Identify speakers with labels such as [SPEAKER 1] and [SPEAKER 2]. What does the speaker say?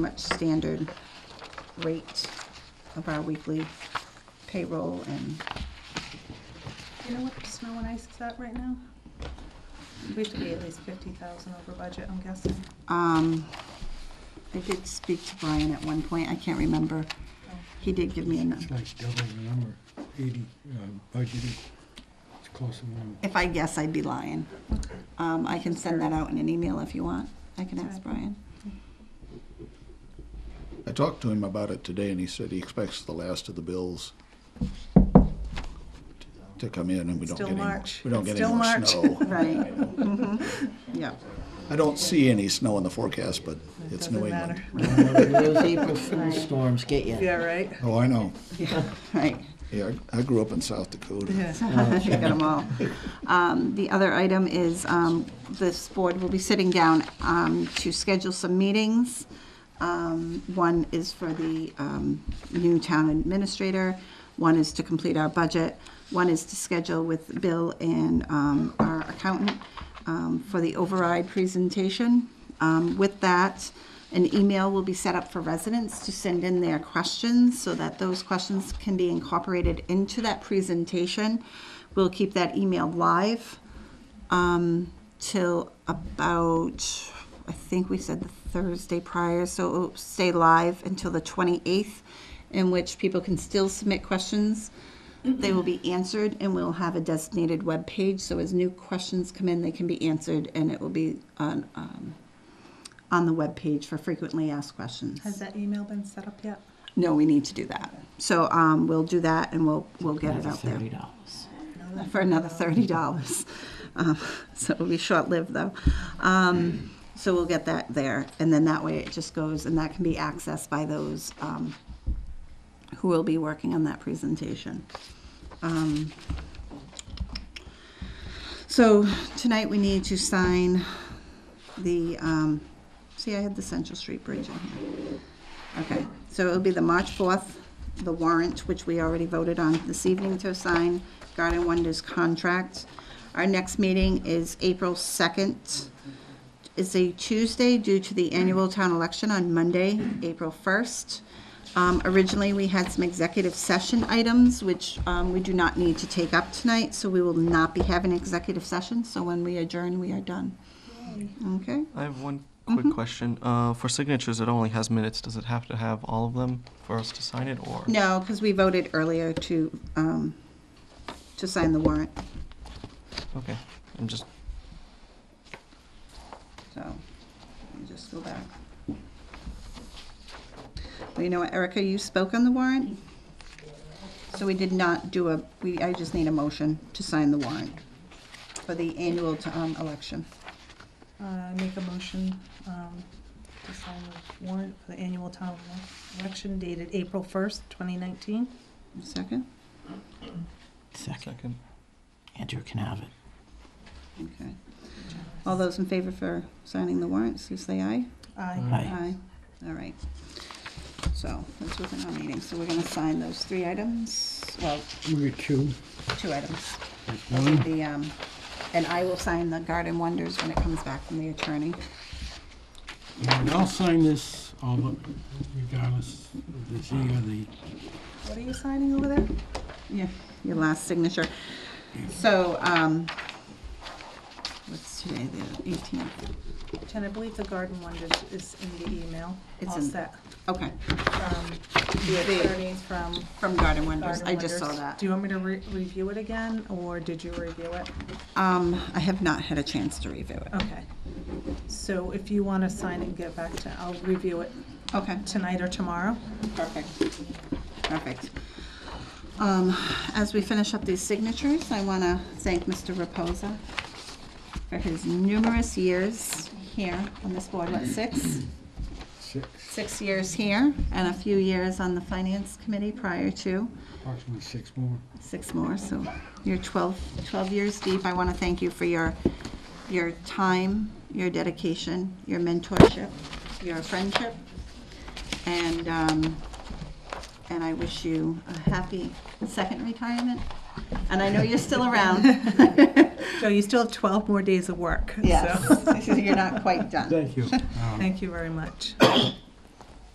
[SPEAKER 1] much standard rate of our weekly payroll and,
[SPEAKER 2] You know what the snow and ice is at right now? We have to be at least fifty thousand over budget, I'm guessing.
[SPEAKER 1] um, I did speak to Brian at one point, I can't remember.
[SPEAKER 2] Oh,
[SPEAKER 1] He did give me a,
[SPEAKER 3] It's
[SPEAKER 1] nu-
[SPEAKER 3] like double the number, eighty, uh, budgeted, it's close to one.
[SPEAKER 1] if I guess, I'd be lying. Um, I can send that out in an email if you want. I can ask Brian.
[SPEAKER 4] I talked to him about it today, and he said he expects the last of the bills to come in, and we don't
[SPEAKER 2] Still
[SPEAKER 4] get any, more-
[SPEAKER 2] March.
[SPEAKER 4] we don't get any
[SPEAKER 2] Still
[SPEAKER 4] more
[SPEAKER 2] March.
[SPEAKER 4] snow.
[SPEAKER 1] Right. Mhm. Yeah.
[SPEAKER 4] I don't see any snow in the forecast, but it's
[SPEAKER 2] Doesn't
[SPEAKER 4] New England.
[SPEAKER 2] matter.
[SPEAKER 5] Those April Fool storms get you.
[SPEAKER 2] Yeah, right?
[SPEAKER 4] Oh, I know.
[SPEAKER 1] Right.
[SPEAKER 4] Yeah, I I grew up in South Dakota.
[SPEAKER 2] Yeah.
[SPEAKER 1] You got 'em all. Um, The other item is um, this board will be sitting down um, to schedule some meetings. Um, One is for the um, new town administrator, one is to complete our budget, one is to schedule with Bill and um, our accountant um, for the override presentation. Um, With that, an email will be set up for residents to send in their questions so that those questions can be incorporated into that presentation. We'll keep that email live um, till about, I think we said the Thursday prior, so it'll stay live until the 28th, in which people can still submit questions. They will be answered, and we'll have a designated web page. so as new questions come in, they can be answered, and it will be on, um, on the webpage for frequently asked questions.
[SPEAKER 2] Has that email been set up yet?
[SPEAKER 1] No, we need to do that. So um, we'll do that, and we'll, we'll get it
[SPEAKER 5] Another
[SPEAKER 1] out there
[SPEAKER 5] Thirty dollars.
[SPEAKER 1] for another thirty dollars. Um, So it'll be short-lived, though. Um, So we'll get that there, and then that way it just goes, and that can be accessed by those um, who will be working on that presentation. Um, So tonight, we need to sign the, um, see, I had the Central Street Bridge in here. Okay, so it'll be the March 4th, the warrant, which we already voted on this evening to sign, Garden Wonders contract. Our next meeting is April 2nd. It's a Tuesday due to the annual town election on Monday, April 1st. Um, Originally, we had some executive session items, which um, we do not need to take up tonight, so we will not be having executive session, so when we adjourn, we are done. Okay?
[SPEAKER 6] I have one quick question. Uh, for signatures, it only has minutes. Does it have to have all of them for us to sign it, or?
[SPEAKER 1] No, because we voted earlier to, um, to sign the warrant,
[SPEAKER 6] Okay, I'm just,
[SPEAKER 1] so, let me just go back. Well, you know what, Erica, you spoke on the warrant? So we did not do a, we, I just need a motion to sign the warrant for the annual, um, election.
[SPEAKER 2] Uh, make a motion, um, to sign the warrant for the annual town election dated April first, twenty nineteen.
[SPEAKER 1] Second?
[SPEAKER 5] Second,
[SPEAKER 6] second.
[SPEAKER 5] Andrew can have it.
[SPEAKER 1] Okay. All those in favor for signing the warrants, please say aye.
[SPEAKER 2] Aye.
[SPEAKER 5] Aye.
[SPEAKER 1] All right. So, that's within our meeting, so we're gonna sign those three items, well,
[SPEAKER 3] We get two,
[SPEAKER 1] two items.
[SPEAKER 3] there's one,
[SPEAKER 1] The, um, and I will sign the Garden Wonders when it comes back from the attorney.
[SPEAKER 3] and I'll sign this, all but regardless of the Z or the,
[SPEAKER 2] What are you signing over there?
[SPEAKER 1] Yeah. Your last signature. So, um, what's today, the eighteenth?
[SPEAKER 2] Jen, I believe the Garden Wonders is in the email.
[SPEAKER 1] It's
[SPEAKER 2] All
[SPEAKER 1] in-
[SPEAKER 2] set.
[SPEAKER 1] Okay,
[SPEAKER 2] Um, the attorney from
[SPEAKER 1] from Garden Wonders, I
[SPEAKER 2] Garden
[SPEAKER 1] just saw
[SPEAKER 2] Wonders.
[SPEAKER 1] that.
[SPEAKER 2] Do you want me to re- review it again, or did you review it?
[SPEAKER 1] Um, I have not had a chance to review it.
[SPEAKER 2] Okay. So if you want to sign and get back to, I'll review it
[SPEAKER 1] Okay.
[SPEAKER 2] tonight or tomorrow.
[SPEAKER 1] Perfect. Perfect. Um, As we finish up these signatures, I want to thank Mr. Reposa for his numerous years here on this board, what, six?
[SPEAKER 3] six,
[SPEAKER 1] Six years here and a few years on the Finance Committee prior to,
[SPEAKER 3] approximately six more.
[SPEAKER 1] six more, so you're 12, 12 years deep. I want to thank you for your, your time, your dedication, your mentorship, your friendship, and, um, and I wish you a happy second retirement. And I know you're still around.
[SPEAKER 2] So you still have 12 more days of work. so
[SPEAKER 1] Yes, you're not quite done.
[SPEAKER 3] Thank you. Um,
[SPEAKER 2] Thank you very much.